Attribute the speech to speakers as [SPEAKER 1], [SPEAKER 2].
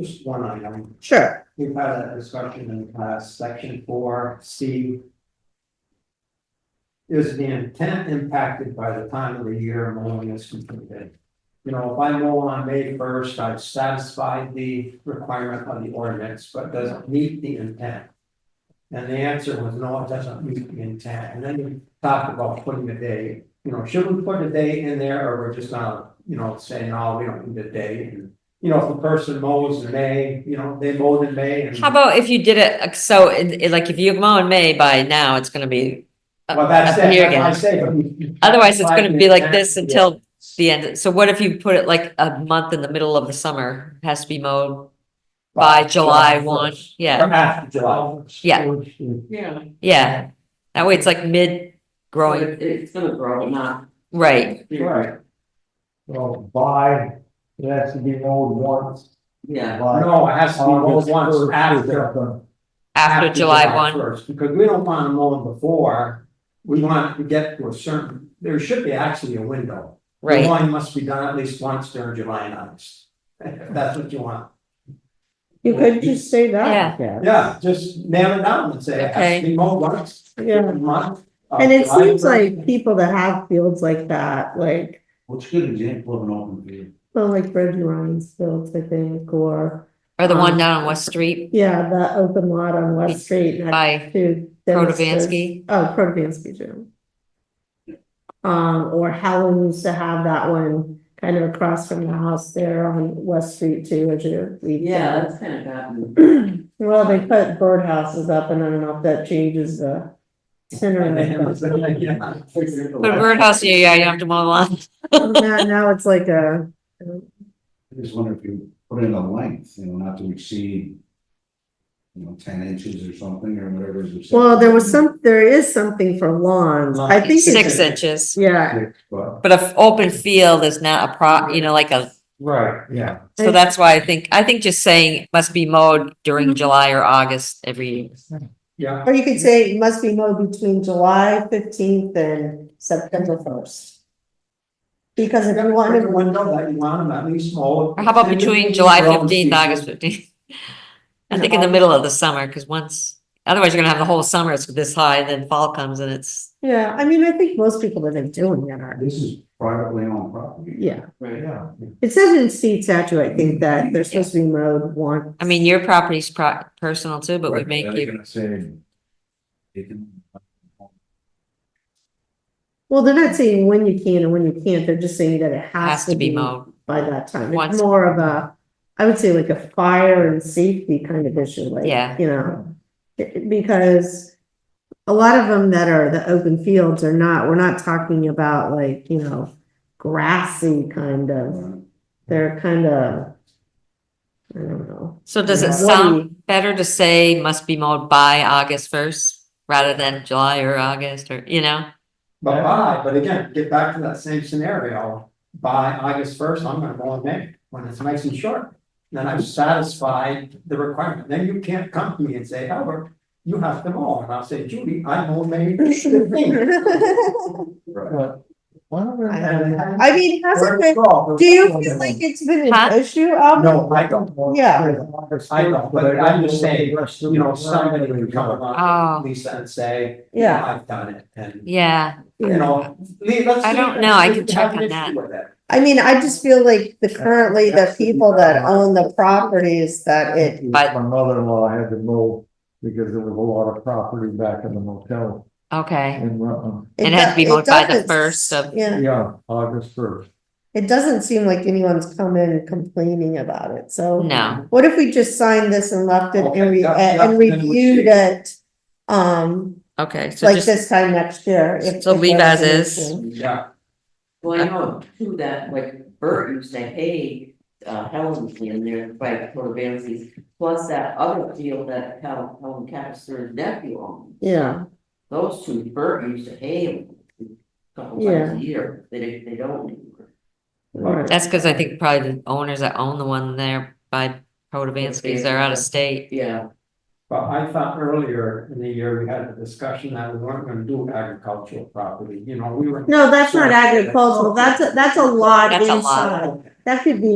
[SPEAKER 1] Just one item,
[SPEAKER 2] Sure,
[SPEAKER 1] we've had a discussion in the past, section four, C. Is the intent impacted by the time of the year mowing is completed? You know, if I mow on May first, I've satisfied the requirement of the ordinance, but doesn't meet the intent. And the answer was no, it doesn't meet the intent, and then you talked about putting a day, you know, should we put a day in there, or we're just not, you know, saying, oh, we don't need a day, and. You know, if the person mows in May, you know, they mowed in May and.
[SPEAKER 3] How about if you did it, like, so, it- it- like, if you mow in May, by now, it's gonna be. up-
[SPEAKER 1] Well, that's
[SPEAKER 3] Uh, up
[SPEAKER 1] it,
[SPEAKER 3] here
[SPEAKER 1] that's what I
[SPEAKER 3] again.
[SPEAKER 1] say, but we- we-
[SPEAKER 3] Otherwise, it's gonna be like this
[SPEAKER 1] Yeah.
[SPEAKER 3] until the end, so what if you put it like a month in the middle of the summer, has to be mowed by July one,
[SPEAKER 1] first.
[SPEAKER 3] yeah,
[SPEAKER 1] Or after July.
[SPEAKER 3] Yeah.
[SPEAKER 4] Yeah.
[SPEAKER 3] yeah. That way it's like mid
[SPEAKER 4] So
[SPEAKER 3] growing,
[SPEAKER 4] it- It's gonna grow, not.
[SPEAKER 3] right,
[SPEAKER 1] Right,
[SPEAKER 5] Well, by, it has to be mowed once.
[SPEAKER 4] Yeah,
[SPEAKER 1] no, it has to be mowed once after.
[SPEAKER 3] after July one,
[SPEAKER 1] First, because we don't wanna mow them before, we want to get to a certain, there should be actually a window. The
[SPEAKER 3] right,
[SPEAKER 1] Mowing must be done at least once during July and August, if that's what you want,
[SPEAKER 2] you could just say that, yeah.
[SPEAKER 1] yeah, just nail it down and say, it has
[SPEAKER 3] Okay.
[SPEAKER 1] to be mowed once.
[SPEAKER 2] Yeah.
[SPEAKER 1] every month of
[SPEAKER 2] And it
[SPEAKER 1] July
[SPEAKER 2] seems
[SPEAKER 1] first.
[SPEAKER 2] like people that have fields like that, like,
[SPEAKER 5] What's a good example of an open field?
[SPEAKER 2] well, like Reggie Ryan's fields, I think, or,
[SPEAKER 3] or the one down on West Street
[SPEAKER 2] yeah, that open lot on West Street next
[SPEAKER 3] by
[SPEAKER 2] to. Dennis's-
[SPEAKER 3] Protovansky.
[SPEAKER 2] Oh, Protovansky Gym. Um, or Helen used to have that one kind of across from the house there on West Street too, as you.
[SPEAKER 4] yeah, that's kind of bad.
[SPEAKER 2] Well, they put birdhouses up and I don't know if that changes the center of it, but-
[SPEAKER 1] Yeah.
[SPEAKER 3] Put a birdhouse in your yard, you don't have to mow the lawn,
[SPEAKER 2] Now, now it's like a,
[SPEAKER 5] I just wonder if you put in a length, you know, not to exceed. You know, ten inches or something or whatever. is
[SPEAKER 2] well, there was some, there is something for lawns. I think
[SPEAKER 3] six
[SPEAKER 2] it's,
[SPEAKER 3] inches.
[SPEAKER 2] yeah,
[SPEAKER 5] accepted, But,
[SPEAKER 3] But if open field is not a pro, you know, like a
[SPEAKER 1] Right, yeah.
[SPEAKER 3] So that's why I think, I think just saying it must be mowed during July or August every year.
[SPEAKER 1] Yeah,
[SPEAKER 2] or you could say it must be mowed between July fifteenth and September first. Because if you want
[SPEAKER 1] Every
[SPEAKER 2] to,
[SPEAKER 1] window that you want them at least mowed.
[SPEAKER 3] Or how about between July
[SPEAKER 1] Grown
[SPEAKER 3] fifteenth,
[SPEAKER 1] season.
[SPEAKER 3] August fifteenth? I think in the middle of the summer, because once, otherwise you're gonna have the whole summer, it's this high, then fall comes and it's,
[SPEAKER 2] yeah, I mean, I think most people that are doing that are,
[SPEAKER 5] this is privately owned property.
[SPEAKER 2] yeah.
[SPEAKER 4] Right.
[SPEAKER 5] Yeah.
[SPEAKER 2] It says in state statute, I think, that they're supposed to be mowed one,
[SPEAKER 3] I mean, your property's pro- personal too, but we
[SPEAKER 5] Right,
[SPEAKER 3] make
[SPEAKER 5] they're
[SPEAKER 3] you,
[SPEAKER 5] gonna Say. They can.
[SPEAKER 2] well, they're not saying when you can and when you can't, they're just saying that it
[SPEAKER 3] has to be mowed.
[SPEAKER 2] by that time. It's
[SPEAKER 3] Once-
[SPEAKER 2] more of a, I would say like a fire and safety kind of issue, like,
[SPEAKER 3] Yeah.
[SPEAKER 2] you know. it- Because a lot of them that are the open fields are not, we're not talking about like, you know, grassy kind of, they're kind of, I don't know.
[SPEAKER 3] So does
[SPEAKER 2] Yeah.
[SPEAKER 3] it sound better to say must be mowed by August first rather than July or August or, you know?
[SPEAKER 1] But by, but again, get back to that same scenario, by August first, I'm gonna mow in May, when it's nice and short. Then I've satisfied the requirement, then you can't come to me and say, Albert, you have to mow, and I'll say, Judy, I mow May fifteenth.
[SPEAKER 5] Right.
[SPEAKER 2] I mean, hasn't been, do you feel like it's been
[SPEAKER 3] Huh?
[SPEAKER 2] an issue? Um,
[SPEAKER 1] No, I don't,
[SPEAKER 2] Yeah.
[SPEAKER 1] I don't, but I'm just saying, you know, somebody would come along,
[SPEAKER 3] Oh.
[SPEAKER 1] Lisa, and say,
[SPEAKER 2] Yeah.
[SPEAKER 1] I've done it, and,
[SPEAKER 3] Yeah.
[SPEAKER 1] you know, Lee, let's.
[SPEAKER 3] I
[SPEAKER 1] see
[SPEAKER 3] don't
[SPEAKER 1] if-
[SPEAKER 3] know, I
[SPEAKER 1] if
[SPEAKER 3] can
[SPEAKER 1] we have
[SPEAKER 3] check
[SPEAKER 1] an
[SPEAKER 3] on
[SPEAKER 1] issue
[SPEAKER 3] that.
[SPEAKER 1] with it.
[SPEAKER 2] I mean, I just feel like the currently the people that own the properties that it
[SPEAKER 3] But-
[SPEAKER 6] My mother-in-law had to mow because there was a lot of property back in the motel
[SPEAKER 3] Okay,
[SPEAKER 6] in Rutland.
[SPEAKER 3] It had to be
[SPEAKER 2] do-
[SPEAKER 3] mowed by the
[SPEAKER 2] doesn't-
[SPEAKER 3] first of-
[SPEAKER 2] Yeah,
[SPEAKER 6] Yeah, August first.
[SPEAKER 2] it doesn't seem like anyone's come in complaining about it, so
[SPEAKER 3] no,
[SPEAKER 2] what if we just signed this and left it
[SPEAKER 1] Okay,
[SPEAKER 2] and re-
[SPEAKER 1] yeah,
[SPEAKER 2] and
[SPEAKER 1] yeah, then we
[SPEAKER 2] reviewed
[SPEAKER 1] see.
[SPEAKER 2] it? Um,
[SPEAKER 3] okay, so
[SPEAKER 2] like
[SPEAKER 3] just,
[SPEAKER 2] this time next year. if-
[SPEAKER 3] So
[SPEAKER 2] if
[SPEAKER 3] leave
[SPEAKER 2] that's
[SPEAKER 3] as
[SPEAKER 2] an
[SPEAKER 3] is.
[SPEAKER 2] issue.
[SPEAKER 1] Yeah,
[SPEAKER 4] Well, I know too that like Bert used to hay, uh, Helen's in there by Protovansky's. Plus that other field that Helen, Helen Capister's nephew owned,
[SPEAKER 2] Yeah,
[SPEAKER 4] those two, Bert used to hay them. a Couple times
[SPEAKER 2] Yeah.
[SPEAKER 4] a year, they, they don't anymore.
[SPEAKER 2] or-
[SPEAKER 3] that's because I think probably the owners that own the one there by Protovansky's, they're out of state.
[SPEAKER 4] Yeah,
[SPEAKER 1] but I thought earlier in the year, we had a discussion that we weren't gonna do agricultural property, you know, we were.
[SPEAKER 2] no, that's not
[SPEAKER 1] Sure.
[SPEAKER 2] agricultural, that's, a- that's a lot
[SPEAKER 3] That's a lot.
[SPEAKER 2] inside, that could be